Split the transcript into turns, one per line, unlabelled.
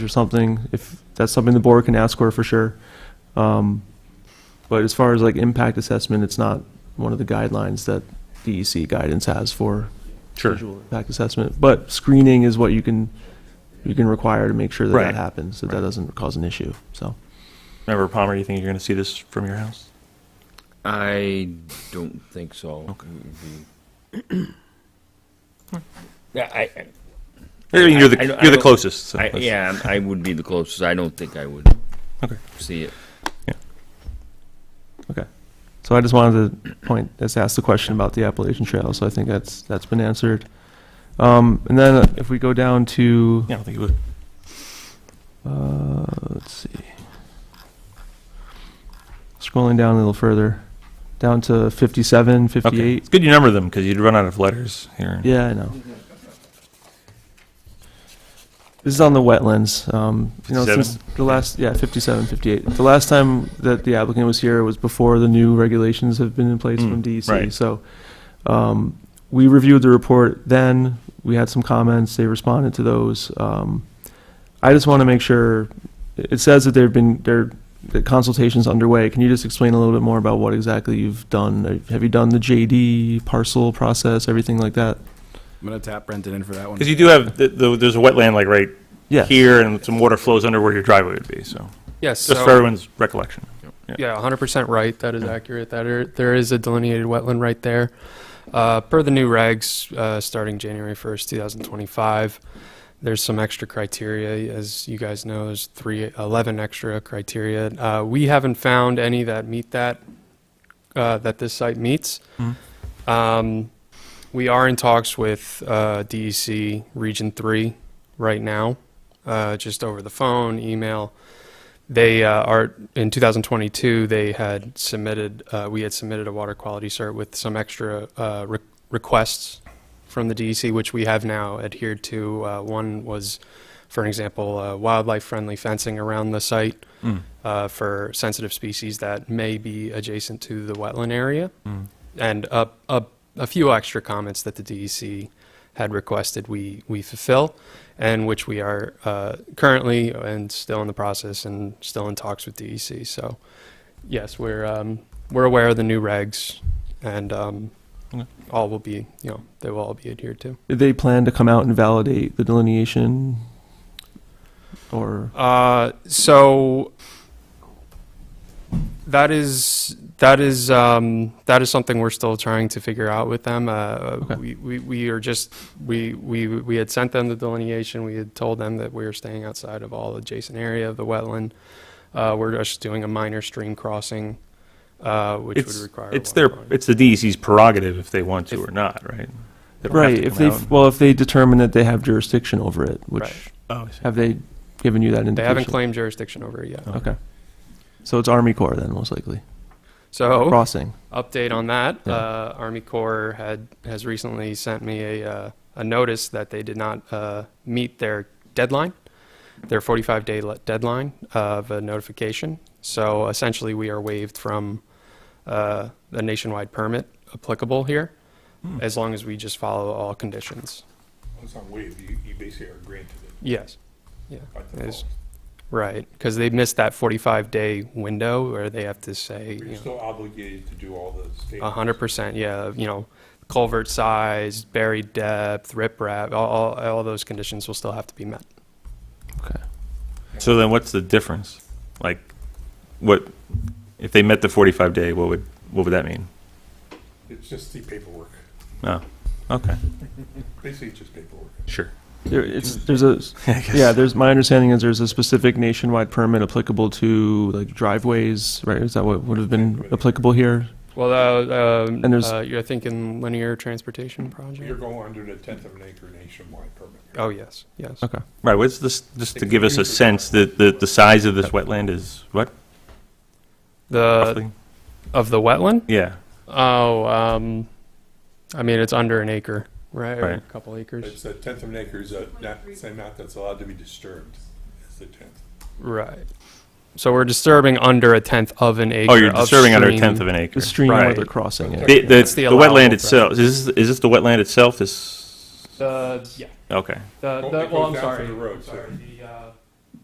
or something, if that's something the board can ask for, for sure. Um, But as far as like impact assessment, it's not one of the guidelines that DEC guidance has for
Sure.
visual impact assessment. But screening is what you can, you can require to make sure that
Right.
that happens, that that doesn't cause an issue, so.
Member Palmer, you think you're going to see this from your house?
I don't think so.
Okay.
The- Yeah, I,
I mean, you're the,
I- I
you're
don't-
the
I-
closest. so
I,
that's-
yeah, I would be the closest. I don't think I would
Okay.
see it.
So I just wanted to point, just ask the question about the Appalachian Trail, so I think that's, that's been answered. Um, And then if we go down to
Yeah, I don't think you would.
Uh, let's see. Scrolling down a little further, down to 57,
Okay.
58.
It's good you number them because you'd run out of letters here.
Yeah, I know. This is on the wetlands. Um, you know, since the last, yeah, 57, 58. The last time that the applicant was here was before the new regulations have been in place
Mm,
from DEC.
right.
So um, we reviewed the report then. We had some comments. They responded to those. Um, I just want to make sure. It says that there've been there the consultations underway. Can you just explain a little bit more about what exactly you've done? Have you done the JD parcel process, everything like that?
I'm gonna tap Brendan in for that one.
Because you do have, the, the, there's a wetland like right
Yeah.
here and some water flows under where your driveway would be. So
Yes,
just
so-
for everyone's recollection.
yeah, 100% right. That is accurate. That are, there is a delineated wetland right there. Uh, per the new regs, uh, starting January 1st, 2025, there's some extra criteria. As you guys know, there's three, 11 extra criteria. Uh, we haven't found any that meet that, uh, that this site meets.
Mhm.
Um, we are in talks with uh, DEC Region 3 right now, uh, just over the phone, email they uh, are in 2022 they had submitted uh, we had submitted a water quality cert with some extra uh, re- requests from the DEC which we have now adhered to uh, one was for an example uh, wildlife friendly fencing around the site
Mm.
uh, for sensitive species that may be adjacent to the wetland area
Mm.
and a, a, a few extra comments that the DEC had requested we, we fulfill, and which we are uh, currently and still in the process and still in talks with DEC. So, yes, we're um, we're aware of the new regs, and um,
Okay.
all will be you know they will all be adhered to.
Did they plan to come out and validate the delineation? Or,
Uh, so that is that is um, that is something we're still trying to figure out with them. Uh, we, we we are just we we we had sent them the delineation. We had told them that we were staying outside of all adjacent area of the wetland. Uh, we're just doing a minor stream crossing, uh, which
It's,
would require.
it's
water
their,
quality.
it's the DEC's prerogative if they want to
If-
or not, right? They don't have
right,
to
if
come
they,
out and-
well, if they determine that they have jurisdiction over it, which,
Right.
Oh, I see.
have they given you that indication?
They haven't claimed jurisdiction over it yet.
Oh.
Okay. So it's Army Corps then, most likely,
Oh.
So
crossing.
update on that.
Yeah.
Uh, Army Corps had has recently sent me a uh, a notice that they did not uh, meet their deadline, their 45 day le- deadline of a notification. So essentially, we are waived from uh, the nationwide permit applicable here, as long as we just follow all conditions.
It's not waived, you, you basically are granted it
Yes. Yeah.
by
Yes.
default.
Right, because they missed that 45 day window where they have to say.
But
you
You're
know,
still obligated to do all the state.
A hundred percent, yeah. You know, culvert size, buried depth, riprap, all, all, all those conditions will still have to be met.
So then what's the difference? Like, what, if they met the 45 day, what would, what would that mean?
It's just the paperwork.
Oh, okay,
Basically, it's just paperwork.
sure.
There, it's, there's a,
I guess.
yeah, there's, my understanding is there's a specific nationwide permit applicable to like driveways, right? Is that what would have been applicable here?
Well, uh, um,
And there's-
uh, you're thinking linear transportation project?
You're going under the tenth of an acre nationwide permit.
Oh, yes, yes.
Okay.
Right, what's this, just to
Six
give us a
meters.
sense, that the, the size of this wetland is what,
The, Uh,
roughly?
of the wetland?
Yeah,
Oh, um, I mean, it's under an acre, right? Or A
Right.
couple acres,
It's a tenth of an acre is a, not, same amount that's allowed to be disturbed is the tenth.
right. So we're disturbing under a tenth of an acre.
oh, you're
of
disturbing under a
stream.
tenth of an acre.
The stream where
Right.
they're crossing it.
The, the,
That's the
the
allowable
wetland itself, is this, is this the wetland itself, this,
The, yeah,
okay.
the,
Well,
the,
it
well,
goes
I'm
down to
sorry.
the road, so-
Sorry, the, uh,